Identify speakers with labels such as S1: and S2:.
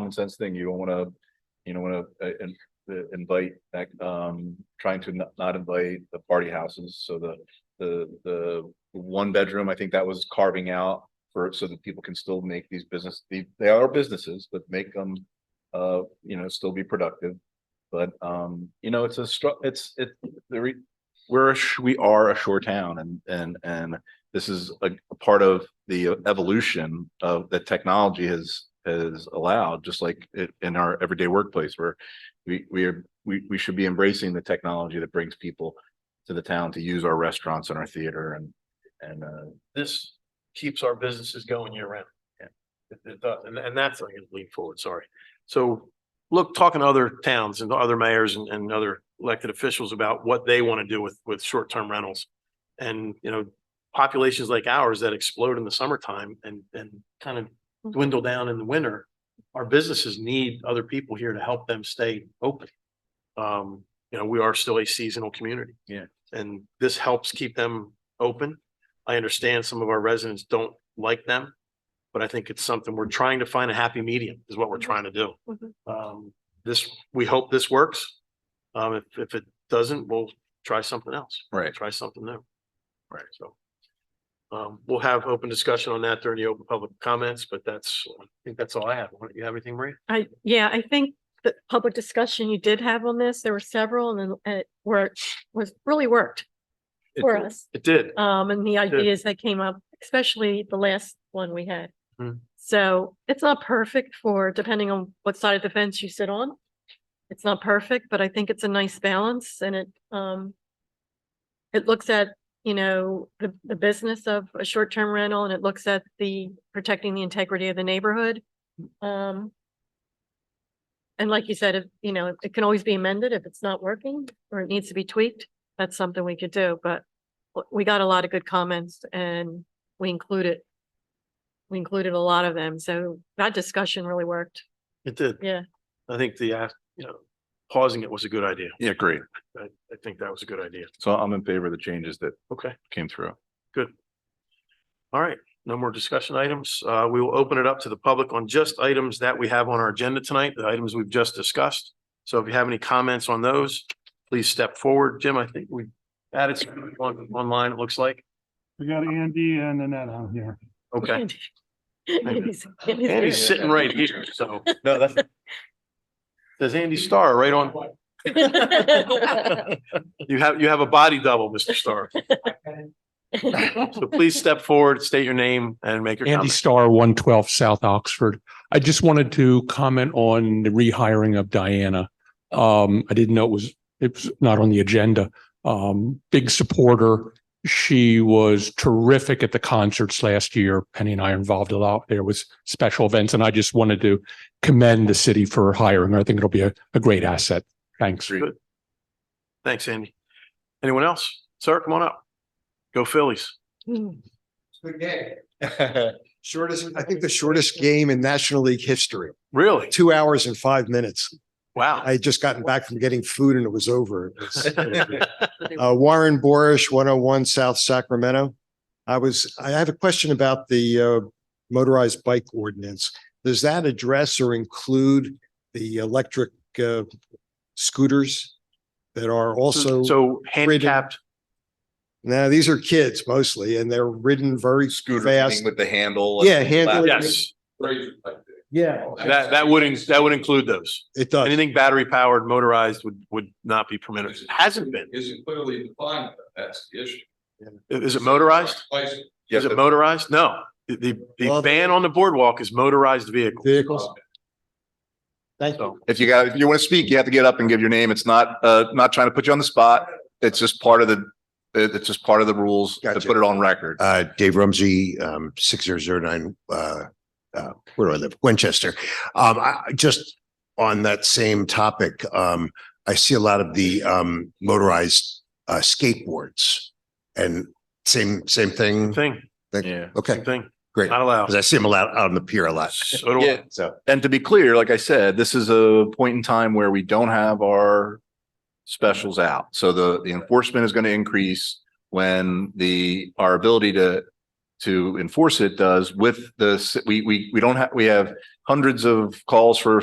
S1: common sense thing. You don't wanna, you don't wanna, uh, in- uh, invite, that, um, trying to not, not invite the party houses. So the, the, the one bedroom, I think that was carving out for, so that people can still make these business, they, they are businesses, but make them, uh, you know, still be productive. But, um, you know, it's a stru, it's, it, the re, we're, a sh- we are a shore town and, and, and this is a, a part of the evolution of that technology has, has allowed, just like it, in our everyday workplace where we, we are, we, we should be embracing the technology that brings people to the town to use our restaurants and our theater and, and, uh,
S2: this keeps our businesses going year round.
S1: Yeah.
S2: It, it does, and, and that's, I'm gonna lean forward, sorry. So, look, talking to other towns and other mayors and, and other elected officials about what they want to do with, with short-term rentals. And, you know, populations like ours that explode in the summertime and, and kind of dwindle down in the winter. Our businesses need other people here to help them stay open. Um, you know, we are still a seasonal community.
S1: Yeah.
S2: And this helps keep them open. I understand some of our residents don't like them, but I think it's something we're trying to find a happy medium is what we're trying to do.
S3: Mhm.
S2: Um, this, we hope this works. Um, if, if it doesn't, we'll try something else,
S1: right.
S2: try something new.
S1: Right.
S2: So. Um, we'll have open discussion on that during the open public comments, but that's, I think that's all I have. Why don't You have anything, Maria?
S3: I, yeah, I think the public discussion you did have on this, there were several and then it worked, was really worked
S2: It
S3: for
S2: did.
S3: us.
S2: It did.
S3: Um, and the
S2: Good.
S3: ideas that came up, especially the last one we had.
S2: Hmm.
S3: So it's not perfect for, depending on what side of the fence you sit on. It's not perfect, but I think it's a nice balance and it, um, it looks at, you know, the, the business of a short-term rental and it looks at the, protecting the integrity of the neighborhood. Um, and like you said, if, you know, it can always be amended if it's not working or it needs to be tweaked. That's something we could do, but w- we got a lot of good comments and we included. We included a lot of them, so that discussion really worked.
S2: It did.
S3: Yeah.
S2: I think the, uh, you know, pausing it was a good idea.
S1: Yeah, great.
S2: I, I think that was a good idea.
S1: So I'm in favor of the changes that
S2: Okay.
S1: came through.
S2: All right, no more discussion items. Uh, we will open it up to the public on just items that we have on our agenda tonight, the items we've just discussed. So if you have any comments on those, please step forward. Jim, I think we added some on, online, it looks like.
S4: We got Andy and Annette on here.
S2: Okay.
S3: And he's- and he's
S2: Andy's
S3: here.
S2: sitting right here, so
S1: No, that's.
S2: there's Andy Starr right on. You have, you have a body double, Mr. Starr. So please step forward, state your name and make your
S5: Andy
S2: comment.
S5: Starr, one twelve South Oxford. I just wanted to comment on the rehiring of Diana. Um, I didn't know it was, it was not on the agenda. Um, big supporter. She was terrific at the concerts last year. Penny and I are involved a lot. There was special events and I just wanted to commend the city for hiring her. I think it'll be a, a great asset. Thanks.
S2: Thanks, Andy. Anyone else? Sir, come on up. Go Phillies.
S6: Good game. Shortest, I think the shortest game in National League history,
S2: Really?
S6: two hours and five minutes.
S2: Wow.
S6: I had just gotten back from getting food and it was over. It was- Uh, Warren Borish, one oh one South Sacramento. I was, I have a question about the uh, motorized bike ordinance. Does that address or include the electric uh, scooters that are also?
S2: So handicapped,
S6: Now, these are kids mostly and they're ridden very
S1: Scooter
S6: fast.
S1: thing with the handle.
S6: Yeah, handle.
S2: yes,
S6: Yeah.
S2: that, that would, in- that would include those.
S6: It does.
S2: Anything battery powered, motorized would, would not be permitted. Hasn't been.
S7: isn't clearly defined, that's the issue.
S2: I- Is it motorized?
S7: License
S2: Is it motorized? No. The- The, the
S6: Well-
S2: ban on the boardwalk is motorized vehicles.
S6: Vehicles. Thank you.
S1: If you got, if you want to speak, you have to get up and give your name. It's not, uh, not trying to put you on the spot. It's just part of the, it- it's just part of the rules to
S6: Gotcha.
S1: put it on record.
S6: Uh, Dave Rumsey, um, six zero zero nine, uh, uh, where do I live? Winchester. Um, I, I just on that same topic, um, I see a lot of the, um, motorized, uh, skateboards and same, same thing.
S2: Thing,
S1: Yeah.
S6: Okay,
S2: thing,
S6: great.
S2: not allowed.
S6: Cause I see them a lot out on the pier a lot.
S2: So do I.
S1: Yeah.
S6: So
S1: And to be clear, like I said, this is a point in time where we don't have our specials out. So the, the enforcement is going to increase when the, our ability to, to enforce it does with the, s- we, we, we don't have, we have hundreds of calls for